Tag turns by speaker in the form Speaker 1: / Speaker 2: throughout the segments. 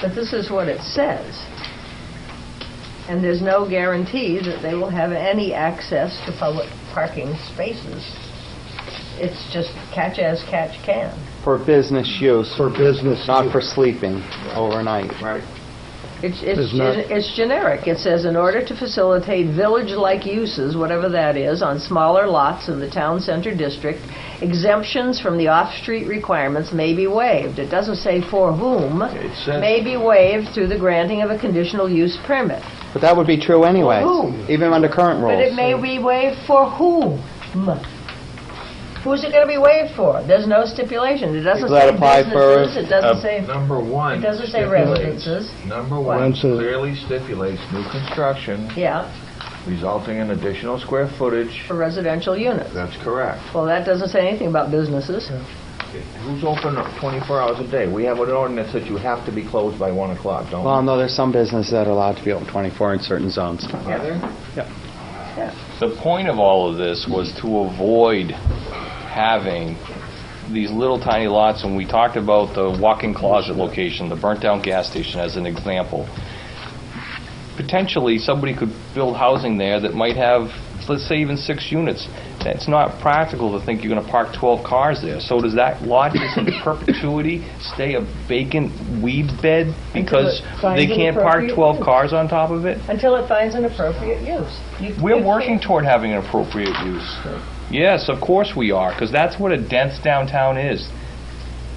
Speaker 1: But this is what it says. And there's no guarantee that they will have any access to public parking spaces. It's just catch as catch can.
Speaker 2: For business use,
Speaker 3: for business.
Speaker 2: not for sleeping overnight.
Speaker 3: Right.
Speaker 1: It's, it's,
Speaker 3: It's not-
Speaker 1: it's generic. It says, in order to facilitate village-like uses, whatever that is, on smaller lots in the town center district, exemptions from the off-street requirements may be waived. It doesn't say for whom,
Speaker 3: It says-
Speaker 1: may be waived through the granting of a conditional use permit.
Speaker 2: But that would be true anyway,
Speaker 1: whom?
Speaker 2: even under current
Speaker 1: But it
Speaker 2: rules.
Speaker 1: may be waived for whom? Who's it going to be waived for? There's no stipulation. It doesn't
Speaker 2: People that
Speaker 1: say
Speaker 2: apply for-
Speaker 1: businesses, it doesn't say,
Speaker 4: Number one.
Speaker 1: it doesn't say
Speaker 4: stipulates-
Speaker 1: residences.
Speaker 4: Number
Speaker 3: One
Speaker 4: one
Speaker 3: says-
Speaker 4: clearly stipulates new construction
Speaker 1: yeah,
Speaker 4: resulting in additional square footage.
Speaker 1: for residential units.
Speaker 4: That's correct.
Speaker 1: Well, that doesn't say anything about businesses.
Speaker 4: Who's open 24 hours a day? We have an ordinance that you have to be closed by 1 o'clock, don't
Speaker 2: Well, no, there's some businesses that are allowed to be open 24 in certain zones.
Speaker 4: we? Are there?
Speaker 5: The point of all of this was to avoid having these little tiny lots, and we talked about the walk-in closet location, the burnt-down gas station as an example. Potentially, somebody could build housing there that might have, let's say even six units. That's not practical to think you're gonna park 12 cars there. So does that lot just in perpetuity stay a vacant weed bed because they
Speaker 1: finds an
Speaker 5: can't park
Speaker 1: appropriate
Speaker 5: 12
Speaker 1: use.
Speaker 5: cars on top of it?
Speaker 1: Until it finds an appropriate use. You-
Speaker 5: We're
Speaker 1: you
Speaker 5: working
Speaker 1: can't-
Speaker 5: toward having an appropriate use. Yes, of course we are, because that's what a dense downtown is.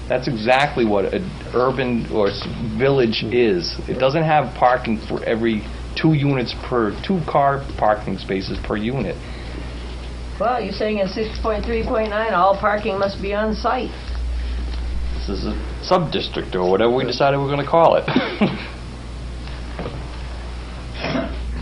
Speaker 5: That's exactly what an urban or s- village is. It doesn't have parking for every two units per, two car parking spaces per unit.
Speaker 1: Well, you're saying in 6.3.9, all parking must be on site.
Speaker 5: This is a sub-district or whatever we decided we're going to call it.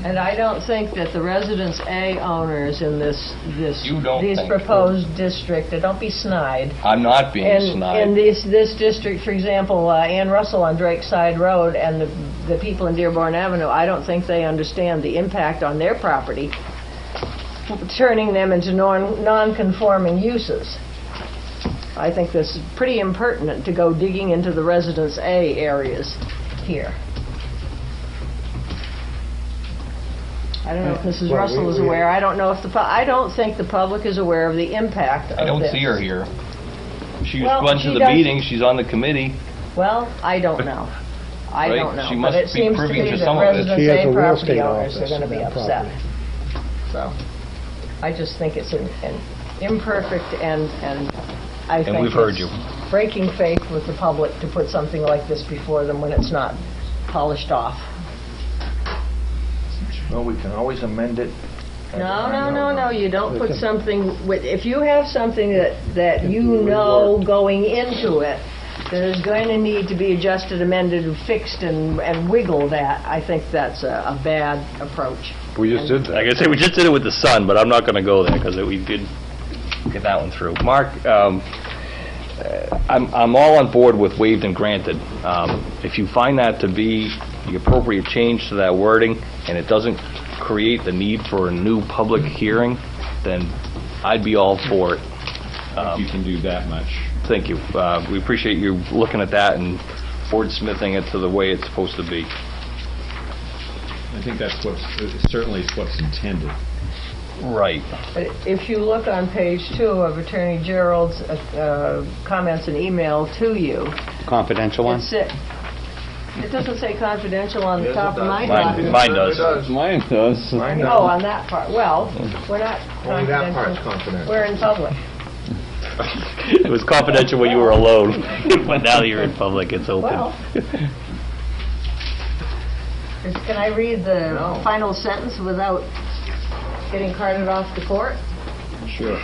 Speaker 1: And I don't think that the Residence A owners in this, this,
Speaker 5: You don't
Speaker 1: these
Speaker 5: think-
Speaker 1: proposed district, uh, don't be snide.
Speaker 5: I'm not being
Speaker 1: And, and
Speaker 5: snide.
Speaker 1: this, this district, for example, uh, Ann Russell on Drake Side Road and the, the people in Dearborn Avenue, I don't think they understand the impact on their property, f- turning them into non, non-conforming uses. I think this is pretty impertinent to go digging into the Residence A areas here. I don't know if Mrs.
Speaker 3: Well, we-
Speaker 1: Russell is
Speaker 3: we-
Speaker 1: aware, I don't know if the, pu- I don't think the public is aware of the impact of this.
Speaker 5: I don't see her here. She
Speaker 1: Well,
Speaker 5: went
Speaker 1: she
Speaker 5: to the
Speaker 1: does-
Speaker 5: meeting, she's on the committee.
Speaker 1: Well, I don't know. I
Speaker 5: Right,
Speaker 1: don't know.
Speaker 5: she must
Speaker 1: but it
Speaker 5: be
Speaker 1: seems
Speaker 5: privy
Speaker 1: to
Speaker 5: to
Speaker 1: me that
Speaker 5: some of it.
Speaker 1: residents
Speaker 3: She has a
Speaker 1: and
Speaker 3: real
Speaker 1: property
Speaker 3: estate
Speaker 1: owners are
Speaker 3: office
Speaker 1: going to
Speaker 3: in
Speaker 1: be
Speaker 3: that
Speaker 1: upset. So, I just think it's an an imperfect and, and I think
Speaker 5: we've heard
Speaker 1: it's
Speaker 5: you.
Speaker 1: breaking faith with the public to put something like this before them when it's not polished off.
Speaker 4: Well, we can always amend it.
Speaker 1: No, no, no, no, you don't put
Speaker 3: Okay.
Speaker 1: something, with- if you have something that, that you know going into it, that is going to need to be adjusted, amended, and fixed, and, and wiggled at, I think that's a, a bad approach.
Speaker 6: We just did that.
Speaker 5: Like I say, we just did it with the sun, but I'm not going to go there because we did get that one through. Mark, um, uh, I'm, I'm all on board with waived and granted. Um, If you find that to be the appropriate change to that wording and it doesn't create the need for a new public hearing, then I'd be all for it.
Speaker 6: You can do that much.
Speaker 5: Thank you. Uh, We appreciate you looking at that and wordsmithing it to the way it's supposed to be.
Speaker 6: I think that's what's, certainly is what's intended.
Speaker 5: Right.
Speaker 1: But if you look on page two of Attorney Gerald's, uh, uh, comments and email to you,
Speaker 2: Confidential one?
Speaker 1: it's, it, it doesn't say confidential on the
Speaker 4: Yes, it
Speaker 1: top of
Speaker 4: does.
Speaker 1: my
Speaker 5: Mine
Speaker 1: document.
Speaker 5: mine does.
Speaker 6: Mine does.
Speaker 4: Mine
Speaker 1: Oh,
Speaker 4: does.
Speaker 1: on that part, well, we're not
Speaker 4: Only that part's
Speaker 1: confidential,
Speaker 4: confidential.
Speaker 1: we're in public.
Speaker 5: It was confidential when you were alone, but now that you're in public, it's open.
Speaker 1: Well. Is- Can I read the
Speaker 4: No.
Speaker 1: final sentence without getting carted off to court?
Speaker 6: Sure.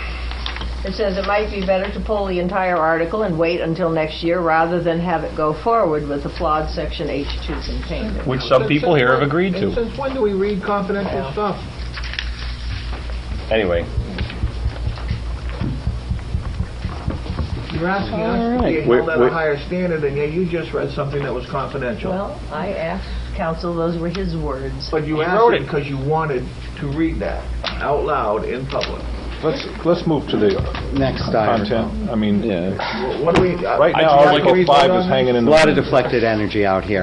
Speaker 1: It says it might be better to pull the entire article and wait until next year rather than have it go forward with the flawed section H2 contained.
Speaker 5: Which some people here have agreed
Speaker 4: And
Speaker 5: to.
Speaker 4: since when do we read confidential stuff?
Speaker 5: Anyway,
Speaker 4: You're asking us to be
Speaker 2: Alright.
Speaker 4: held at a
Speaker 6: We- we-
Speaker 4: higher standard, and yet you just read something that was confidential.
Speaker 1: Well, I asked counsel, those were his words.
Speaker 4: But you
Speaker 5: He wrote
Speaker 4: asked it
Speaker 5: it.
Speaker 4: because you wanted to read that out loud in public.
Speaker 6: Let's, let's move to the
Speaker 2: Next item.
Speaker 6: content. I mean,
Speaker 4: What do we? uh,
Speaker 6: right now,
Speaker 4: I-
Speaker 6: Article 5 is hanging
Speaker 2: A
Speaker 6: in the...
Speaker 2: lot of deflected energy out here.